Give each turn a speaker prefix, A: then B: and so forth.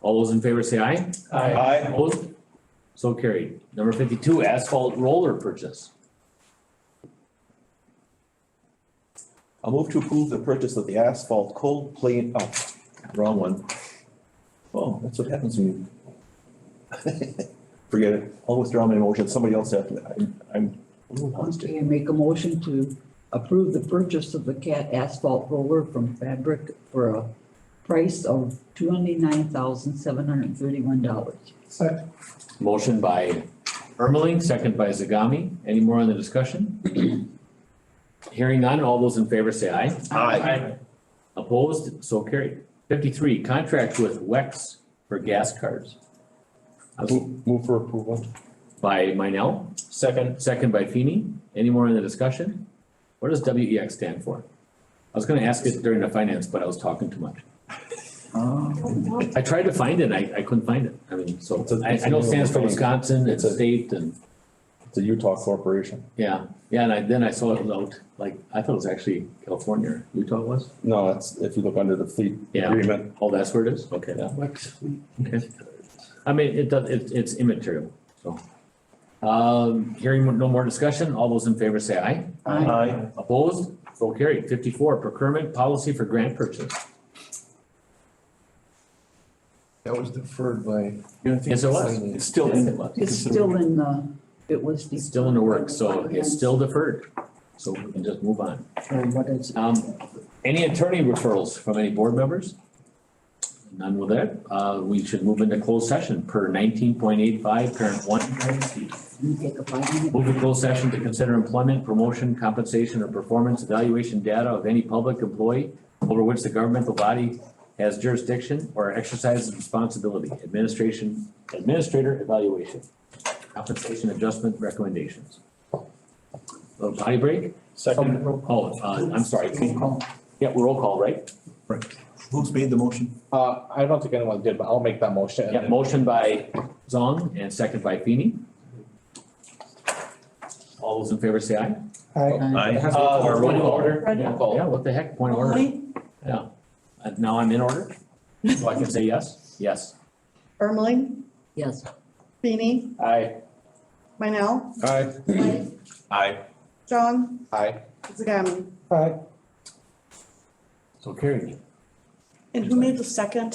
A: All those in favor say aye.
B: Aye.
A: Opposed? So carried. Number fifty-two, asphalt roller purchase.
B: I'll move to approve the purchase of the asphalt cold plate, oh, wrong one. Oh, that's what happens when you. Forget it. I'll withdraw my motion. Somebody else after that. I'm- I'm. a little lost here.
C: Okay, make a motion to approve the purchase of the cat asphalt roller from Fabric for a price of twenty-nine thousand seven hundred and thirty-one dollars.
D: Second.
A: Motion by Ermeling, second by Zagami. Any more on the discussion? Hearing none, all those in favor say aye. Opposed? So carried. Fifty-three, contract with Wex for gas cards.
E: Move for approval.
A: By Minell,
E: Second.
A: second by Feeny. Any more in the discussion? What does WEX stand for? I was gonna ask it during the finance, but I was talking too much. I tried to find it, I, I couldn't find it. I mean, so,
E: It's a-
A: I, I know it stands for Wisconsin, it's a state and,
E: It's a Utah corporation.
A: yeah. Yeah, and I, then I saw it out, like, I thought it was actually California, or Utah was?
E: No, that's, if you look under the fleet
A: Yeah.
E: agreement,
A: Oh, that's where it is? Okay.
E: Yeah.
A: Okay. I mean, it does, it's, it's immaterial, so. Um, hearing no more discussion, all those in favor say aye.
C: Aye.
A: Opposed? So carried. Fifty-four, procurement policy for grant purchase.
D: That was deferred by.
A: Yes, it was.
D: It's
A: still in.
C: It's still in the, it was.
A: It's still in the works, so it's still deferred. So we can just move on.
C: Or what is it?
A: Um, any attorney referrals from any board members? None with that. Uh, we should move into closed session per nineteen point eight five, parent one, parent C.
C: Can you take a five minute?
A: Move to closed session to consider employment, promotion, compensation, or performance evaluation data of any public employee over which the governmental body has jurisdiction or exercises responsibility, administration, administrator evaluation, compensation adjustment recommendations. Little body break?
E: second.
A: Oh, uh, I'm sorry.
C: call.
A: Yeah, roll call, right?
B: Who's made the motion?
E: Uh, I don't think anyone did, but I'll make that motion.
A: Yeah, motion by Zong and second by Feeny. All those in favor say aye.
B: Aye.
A: Uh, point of order.
F: Roll
A: Yeah,
E: call.
A: yeah, what the heck, point of order. Yeah. Uh, Now I'm in order, so I can say yes, yes.
F: Ermeling,
C: Yes.
F: Feeny,
E: Aye.
F: Minell,
E: Aye.
F: Blake,
B: Aye.
F: John,
E: Aye.
F: Zagami.
D: Aye.
A: So carried.
F: And who made the second?